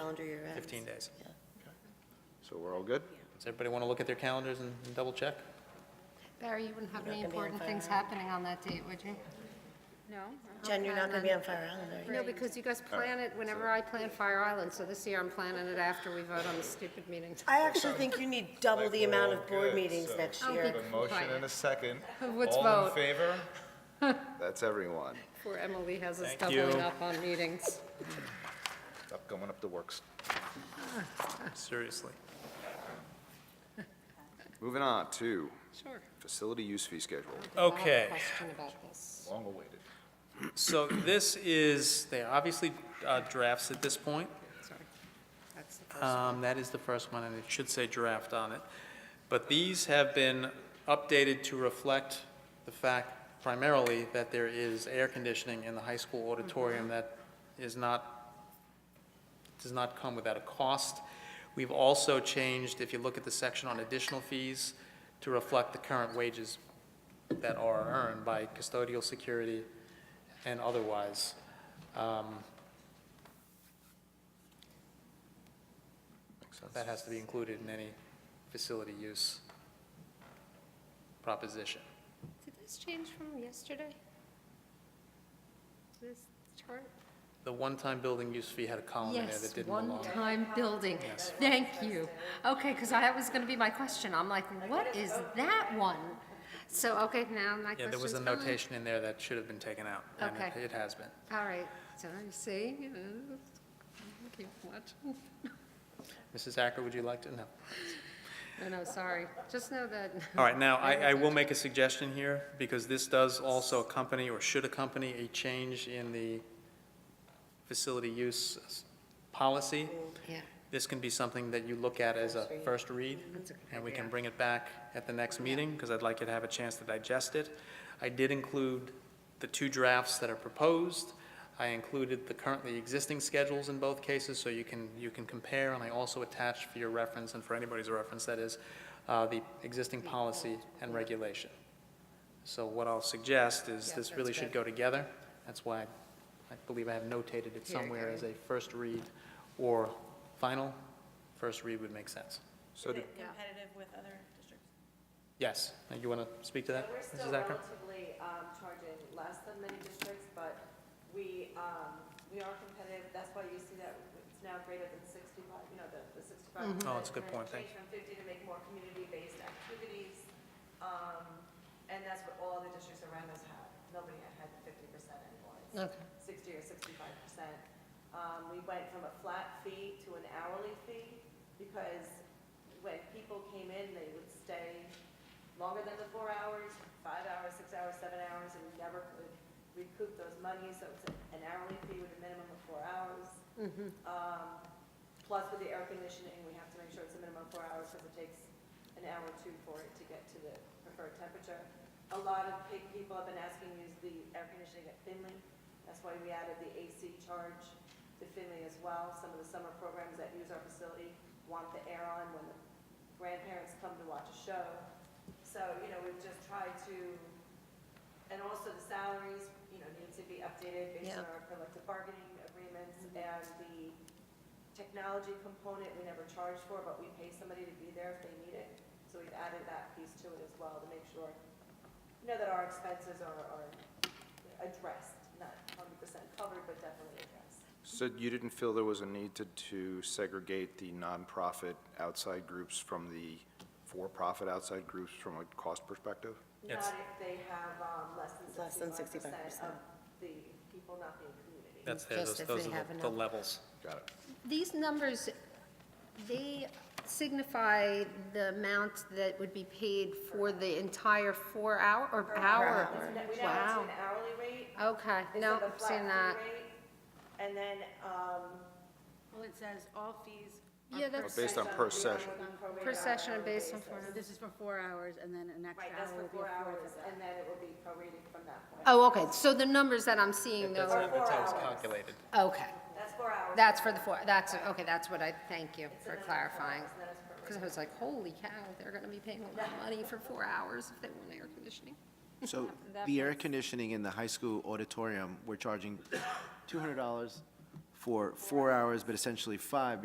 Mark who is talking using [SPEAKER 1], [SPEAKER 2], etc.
[SPEAKER 1] max.
[SPEAKER 2] 15 days.
[SPEAKER 1] Yeah.
[SPEAKER 3] So we're all good?
[SPEAKER 2] Does everybody want to look at their calendars and and double check?
[SPEAKER 4] Barry, you wouldn't have any
[SPEAKER 1] gonna be on
[SPEAKER 4] important things
[SPEAKER 1] fire.
[SPEAKER 4] happening on that date, would you?
[SPEAKER 5] No?
[SPEAKER 1] Jen, you're not going to be on Fire Island, are you?
[SPEAKER 4] No, because you guys plan it whenever I plan Fire Island, so this year I'm planning it after we vote on the stupid meeting.
[SPEAKER 1] I actually think you need double the amount of
[SPEAKER 6] Like, we're all
[SPEAKER 1] board
[SPEAKER 6] good,
[SPEAKER 1] meetings
[SPEAKER 6] so-
[SPEAKER 1] next
[SPEAKER 4] I'll
[SPEAKER 1] year.
[SPEAKER 4] be-
[SPEAKER 6] A motion and a second.
[SPEAKER 4] Let's
[SPEAKER 6] All in
[SPEAKER 4] vote.
[SPEAKER 6] favor?
[SPEAKER 3] That's everyone.
[SPEAKER 4] Poor Emily has us
[SPEAKER 2] Thank
[SPEAKER 4] doubling
[SPEAKER 2] you.
[SPEAKER 4] up on meetings.
[SPEAKER 6] Stop going up the works.
[SPEAKER 2] Seriously.
[SPEAKER 3] Moving on to
[SPEAKER 4] Sure.
[SPEAKER 3] facility use fee schedule.
[SPEAKER 2] Okay.
[SPEAKER 4] I have a question about this.
[SPEAKER 6] Long awaited.
[SPEAKER 2] So this is, they are obviously uh, drafts at this point.
[SPEAKER 4] Sorry. That's the first.
[SPEAKER 2] Um, That is the first one, and it should say draft on it. But these have been updated to reflect the fact primarily that there is air conditioning in the high school auditorium that is not, does not come without a cost. We've also changed, if you look at the section on additional fees, to reflect the current wages that are earned by custodial security and otherwise. Um, That has to be included in any facility use proposition.
[SPEAKER 4] Did this change from yesterday? This chart?
[SPEAKER 2] The one-time building use fee had a column in there
[SPEAKER 4] Yes,
[SPEAKER 2] that didn't belong.
[SPEAKER 4] one-time building. Thank you. Okay, because that was going to be my question. I'm like, what is that one? So, okay, now my question's
[SPEAKER 2] Yeah, there was a
[SPEAKER 4] gone.
[SPEAKER 2] notation in there that should have been taken out. and it-
[SPEAKER 4] Okay.
[SPEAKER 2] It has been.
[SPEAKER 4] All right, so I see, you know, keep watching.
[SPEAKER 2] Mrs. Acker, would you like to? No.
[SPEAKER 4] No, no, sorry. Just know that,
[SPEAKER 2] All right, now, I, I will make a suggestion here, because this does also accompany, or should accompany, a change in the facility use s- policy.
[SPEAKER 4] yeah,
[SPEAKER 2] This can be something that you look at as a first read, and we can bring it back at the next meeting, because I'd like you to have a chance to digest it. I did include the two drafts that are proposed. I included the currently existing schedules in both cases, so you can, you can compare, and I also attached for your reference, and for anybody's reference, that is, uh, the existing policy and regulation. So what I'll suggest is,
[SPEAKER 4] Yeah,
[SPEAKER 2] this
[SPEAKER 4] that's
[SPEAKER 2] really should go
[SPEAKER 4] good.
[SPEAKER 2] together. That's why I believe I have notated it
[SPEAKER 4] Here,
[SPEAKER 2] somewhere
[SPEAKER 4] Gary.
[SPEAKER 2] as a first read or final. First read would make sense.
[SPEAKER 3] So did-
[SPEAKER 7] competitive with other districts?
[SPEAKER 2] Yes, Now, you want to speak to that,
[SPEAKER 8] We're still
[SPEAKER 2] Mrs. Acker?
[SPEAKER 8] relatively um, charging less than many districts, but we, um, we are competitive. That's why you see that it's now greater than 65, you know, the the 65.
[SPEAKER 2] Oh, that's a good point, thank
[SPEAKER 8] Change from 50 to make more community-based activities. um, And that's what all the districts around us have. Nobody had had the 50% anymore. It's
[SPEAKER 4] okay,
[SPEAKER 8] 60 or 65 percent. Um, We went from a flat fee to an hourly fee because when people came in, they would stay longer than the four hours, five hours, six hours, seven hours, and we never could recoup those monies. So it's an hourly fee with a minimum of four hours. Um, Plus with the air conditioning, we have to make sure it's a minimum of four hours because it takes an hour or two for it to get to the preferred temperature. A lot of pe- people have been asking to use the air conditioning at Finley. That's why we added the AC charge to Finley as well. Some of the summer programs that use our facility want the air on when the grandparents come to watch a show. So, you know, we've just tried to, and also the salaries, you know, need to be updated based on
[SPEAKER 1] Yeah.
[SPEAKER 8] our collective bargaining agreements and the technology component we never charge for, but we pay somebody to be there if they need it. So we've added that piece to it as well to make sure, you know, that our expenses are, are addressed, not hundred percent covered, but definitely addressed.
[SPEAKER 3] so you didn't feel there was a need to, to segregate the nonprofit outside groups from the for-profit outside groups from a cost perspective?
[SPEAKER 2] Yes.
[SPEAKER 8] Not if they have, um, less than
[SPEAKER 1] Less than
[SPEAKER 8] sixty-five percent
[SPEAKER 1] 65%.
[SPEAKER 8] of the people not being community.
[SPEAKER 2] That's there,
[SPEAKER 4] Just
[SPEAKER 2] those
[SPEAKER 4] if
[SPEAKER 2] those
[SPEAKER 4] they
[SPEAKER 2] are
[SPEAKER 4] have
[SPEAKER 2] the- the
[SPEAKER 4] enough.
[SPEAKER 2] levels.
[SPEAKER 3] Got it.
[SPEAKER 4] These numbers, they signify the amount that would be paid for the entire four hour, or hour?
[SPEAKER 8] We now
[SPEAKER 4] Wow. Oh,
[SPEAKER 8] do an hourly rate.
[SPEAKER 4] Okay,
[SPEAKER 8] instead
[SPEAKER 4] no,
[SPEAKER 8] of a
[SPEAKER 4] I'm
[SPEAKER 8] flat
[SPEAKER 4] seeing
[SPEAKER 8] fee
[SPEAKER 4] that.
[SPEAKER 8] rate, And then, um,
[SPEAKER 7] Well, it says all fees. are
[SPEAKER 4] Yeah,
[SPEAKER 7] per
[SPEAKER 4] that's-
[SPEAKER 3] Based on
[SPEAKER 8] Based
[SPEAKER 3] per session.
[SPEAKER 4] Per session and based on four.
[SPEAKER 7] So This is for four hours, and then an extra
[SPEAKER 8] Right,
[SPEAKER 7] hour
[SPEAKER 8] that's for
[SPEAKER 7] would be
[SPEAKER 8] four hours,
[SPEAKER 7] afforded.
[SPEAKER 8] and then it will be prorated from that point.
[SPEAKER 4] Oh, okay, so the numbers that I'm seeing
[SPEAKER 2] That's
[SPEAKER 4] though,
[SPEAKER 2] how that's how it's
[SPEAKER 8] hours.
[SPEAKER 2] calculated.
[SPEAKER 4] okay,
[SPEAKER 8] That's four hours.
[SPEAKER 4] that's for the four, that's, okay, that's what I, thank you for
[SPEAKER 8] another four
[SPEAKER 4] clarifying.
[SPEAKER 8] hours, and then it's prorated.
[SPEAKER 4] Because I was like, holy cow, they're gonna be paying a lot of money for four hours if they want air conditioning.
[SPEAKER 9] So the air conditioning in the high school auditorium, we're charging $200 for four hours, but essentially five